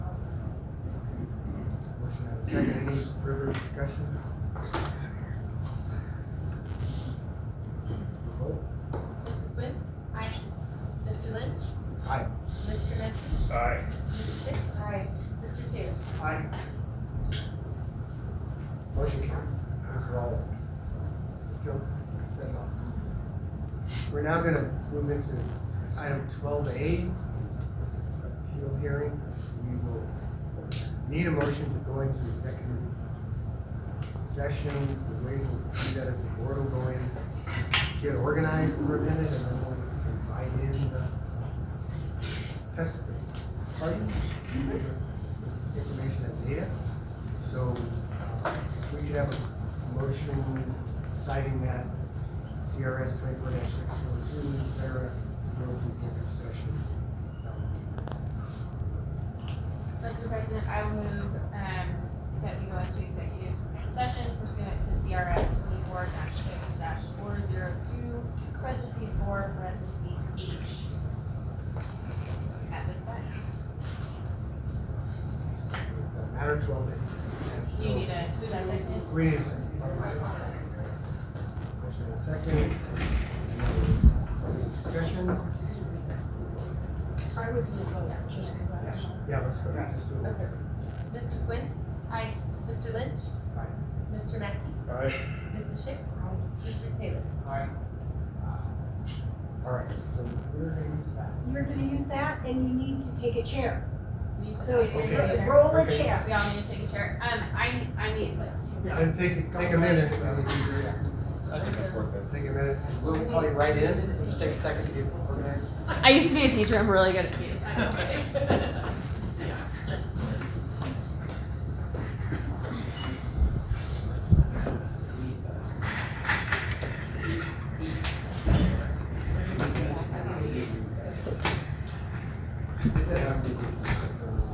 Motion and a second, any further discussion? Vote? Mrs. Quinn? Aye. Mr. Lynch? Aye. Mr. Menke? Aye. Mrs. Schick? Aye. Mr. Taylor? Aye. Motion carries. Those are all jump set off. We're now gonna move into item twelve A, this appeal hearing. We will need a motion to go into executive session. The way we'll do that is the board will go in, just get organized for a minute, and then we'll invite in the test parties information and data. So uh, if we could have a motion citing that CRS twenty-four six four two, Sarah, go to executive session. That would Mr. President, I will move, um, that we go into executive session pursuant to CRS twenty-four six four zero two, parentheses four, parentheses H. At this time, be something that Matter twelve then. And do you so- need a, is that second? We need a second. Motion and a second. Any Discussion? I would do a vote, just because Yeah, Yeah, let's go. Just do it. Okay. Mrs. Quinn? Aye. Mr. Lynch? Aye. Mr. Menke? Aye. Mrs. Schick? Aye. Mr. Taylor? Uh, All right, so we're gonna use that. You're gonna use that and you need to take a chair. We need to So take a Okay. chair. roll a Okay. chair. We all need to take a chair. Um, I, need- I need like two minutes. And take, take a minute. yeah. I think I'm worth it. Take a minute, and we'll call you right in, We'll just take a second to get organized. I used to be a teacher. I'm really good at meetings. Is it?